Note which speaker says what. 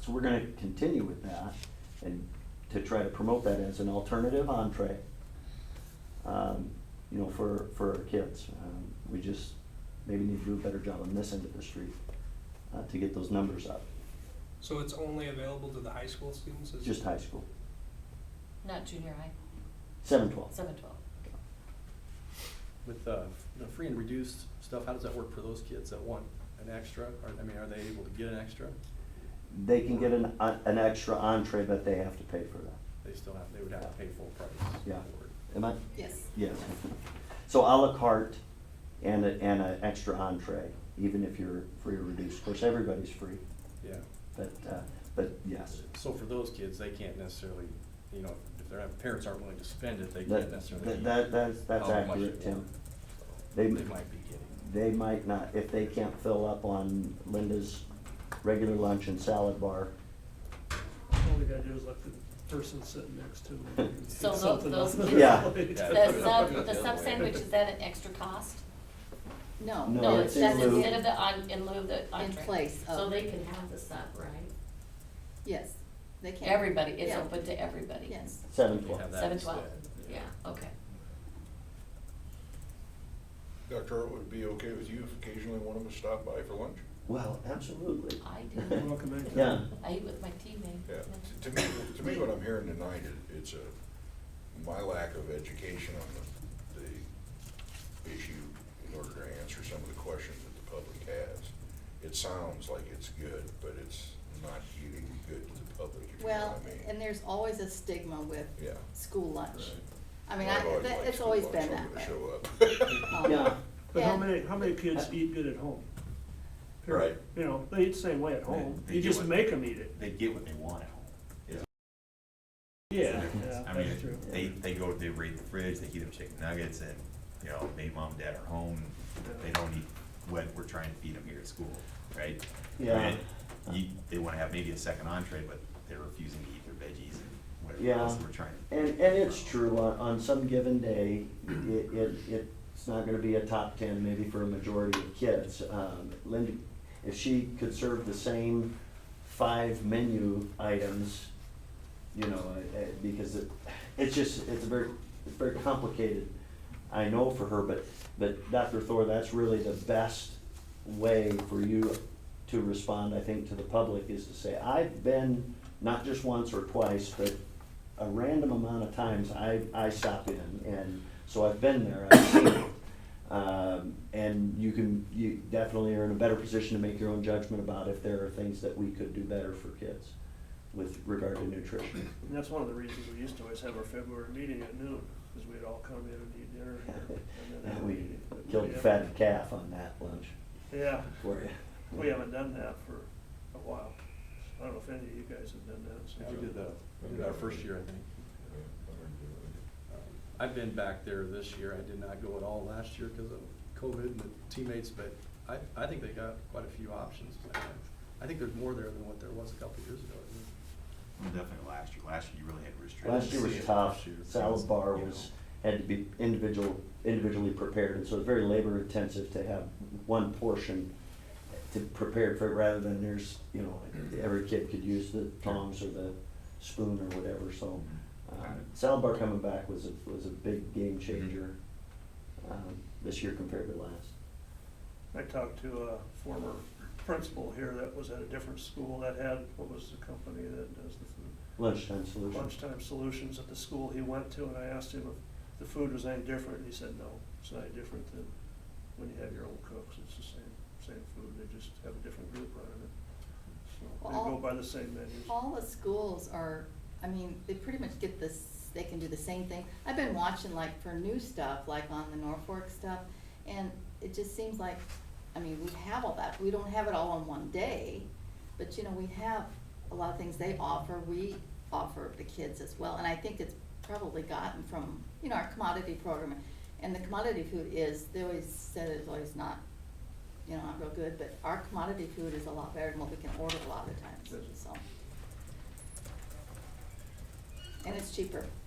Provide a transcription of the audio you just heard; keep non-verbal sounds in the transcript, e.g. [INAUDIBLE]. Speaker 1: So we're gonna continue with that and to try to promote that as an alternative entree, um, you know, for, for our kids. Um, We just maybe need to do a better job on this end of the street uh, to get those numbers up,
Speaker 2: So it's only available to the high school students? Is-
Speaker 1: just high school,
Speaker 3: Not junior high,
Speaker 1: seven twelve.
Speaker 3: seven twelve.
Speaker 4: With uh, the free and reduced stuff, how does that work for those kids that want an extra? Or, I mean, are they able to get an extra?
Speaker 1: They can get an, uh, an extra entree, but they have to pay for that.
Speaker 4: They still have, they would have to pay full price.
Speaker 1: Yeah.
Speaker 4: for it.
Speaker 1: Am I,
Speaker 3: Yes.
Speaker 1: Yes. [LAUGHS] So à la carte and a, and an extra entree, even if you're free or reduced. Of course, everybody's free,
Speaker 4: Yeah.
Speaker 1: but, uh, but yes.
Speaker 4: So for those kids, they can't necessarily, you know, if their parents aren't willing to spend it, they
Speaker 1: That-
Speaker 4: can't necessarily.
Speaker 1: that- that- that's- that's
Speaker 4: how much
Speaker 1: accurate,
Speaker 4: they want.
Speaker 1: Tim.
Speaker 4: So
Speaker 1: They-
Speaker 4: They might be getting.
Speaker 1: They might not, if they can't fill up on Linda's regular lunch and salad bar,
Speaker 5: All they gotta do is let the person sitting next to
Speaker 3: [LAUGHS]
Speaker 5: them. get
Speaker 3: So tho-
Speaker 5: something
Speaker 3: those
Speaker 5: off their
Speaker 3: kids-
Speaker 1: Yeah.
Speaker 5: plate.
Speaker 4: Yeah,
Speaker 3: The sub, the sub sandwich, is that an extra cost?
Speaker 6: No.
Speaker 1: No,
Speaker 3: No,
Speaker 1: it's
Speaker 3: it's
Speaker 1: in
Speaker 3: that's
Speaker 1: lieu.
Speaker 3: instead of the, on- in lieu of the
Speaker 6: In
Speaker 3: entree.
Speaker 6: place
Speaker 3: So
Speaker 6: of,
Speaker 3: they can have the sub, right?
Speaker 6: yes, they can.
Speaker 3: Everybody, it's
Speaker 6: Yeah.
Speaker 3: open to everybody.
Speaker 6: Yes.
Speaker 1: seven
Speaker 4: You
Speaker 1: twelve.
Speaker 4: have that
Speaker 3: Seven twelve,
Speaker 4: instead,
Speaker 3: yeah, okay.
Speaker 7: Dr. Earl, would it be okay with you if occasionally one of us stopped by for lunch?
Speaker 1: Well, absolutely.
Speaker 3: I do.
Speaker 5: Welcome back.
Speaker 1: Yeah, [LAUGHS]
Speaker 3: I eat with my teammate.
Speaker 7: Yeah, to to me, to me, what I'm hearing tonight, it- it's a, my lack of education on the, the issue in order to answer some of the questions that the public has. It sounds like it's good, but it's not really good to the public, if you know
Speaker 6: Well,
Speaker 7: what I mean.
Speaker 6: and there's always a stigma with
Speaker 7: Yeah.
Speaker 6: school lunch.
Speaker 7: Right.
Speaker 6: I mean,
Speaker 7: Well, I've
Speaker 6: I,
Speaker 7: always
Speaker 6: that-
Speaker 7: liked
Speaker 6: it's
Speaker 7: school
Speaker 6: always
Speaker 7: lunch,
Speaker 6: been
Speaker 7: I'm
Speaker 6: that
Speaker 7: gonna
Speaker 6: way.
Speaker 7: Show up. [LAUGHS]
Speaker 6: Um,
Speaker 1: yeah,
Speaker 5: But how
Speaker 6: Yeah.
Speaker 5: many, how many kids eat good at home?
Speaker 7: Right.
Speaker 5: You know, they eat the same way at home,
Speaker 8: They- they
Speaker 5: you
Speaker 8: do
Speaker 5: just
Speaker 8: it.
Speaker 5: make them eat it.
Speaker 8: they get what they want at home.
Speaker 5: Yeah,
Speaker 8: I
Speaker 5: yeah,
Speaker 8: mean,
Speaker 5: that's true.
Speaker 8: they, they go, they raid the fridge, they heat up chicken nuggets and, you know, maybe mom and dad are home. They don't eat what we're trying to feed them here at school, right? I
Speaker 1: Yeah.
Speaker 8: mean, You, they wanna have maybe a second entree, but they're refusing to eat their veggies and
Speaker 1: Yeah.
Speaker 8: whatever else we're trying. to-
Speaker 1: and, and it's true, on, on some given day, it, it, it's not gonna be a top ten maybe for a majority of kids. Um, Linda, if she could serve the same five menu items, you know, uh, uh, because it, it's just, it's a very, it's very complicated, I know for her, but, but Dr. Thor, that's really the best way for you to respond, I think, to the public, is to say, I've been, not just once or twice, but a random amount of times I, I stop in, and so I've been there, I've seen it. Um, and you can, you definitely are in a better position to make your own judgment about if there are things that we could do better for kids with regard to nutrition.
Speaker 5: And that's one of the reasons we used to always have our February meeting at noon, because we'd all come in and eat dinner. and then have
Speaker 1: And [LAUGHS]
Speaker 5: a
Speaker 1: we
Speaker 5: meeting. But
Speaker 1: killed
Speaker 5: we
Speaker 1: the
Speaker 5: haven't-
Speaker 1: fatted calf on that lunch
Speaker 5: Yeah,
Speaker 1: for you.
Speaker 5: we haven't done that for a while. I don't know if any of you guys have done that. so-
Speaker 4: Yeah, we did that, we did our first year, I think. Um, I've been back there this year. I did not go at all last year because of COVID and the teammates, but I, I think they got quite a few options. I think there's more there than what there was a couple of years ago.
Speaker 8: Well, Definitely last year, last year you really had restrictions.
Speaker 1: Last year was tough, salad bar was, had to be individual, individually prepared, and so it's very labor intensive to have one portion to prepare for, it rather than there's, you know, every kid could use the tongs or the spoon or whatever, so.
Speaker 8: Mhm.
Speaker 1: um,
Speaker 8: Got it.
Speaker 1: Salad bar coming back was a, was a big game changer, um, this year compared to last.
Speaker 5: I talked to a former principal here that was at a different school that had, what was the company that does the food?
Speaker 1: Lunchtime solution.
Speaker 5: Lunchtime Solutions at the school he went to, and I asked him if the food was any different, and he said, no, it's not any different than when you have your old cooks, it's the same, same food, they just have a different group running it. So they go
Speaker 6: All-
Speaker 5: by the same menus.
Speaker 6: All the schools are, I mean, they pretty much get this, they can do the same thing. I've been watching like for new stuff, like on the Norfolk stuff, and it just seems like, I mean, we have all that. We don't have it all on one day, but you know, we have a lot of things they offer, we offer the kids as well. And I think it's probably gotten from, you know, our commodity program. And the commodity food is, they always said it's always not, you know, not real good, but our commodity food is a lot better than what we can order a lot of the times, so. And it's cheaper. [LAUGHS]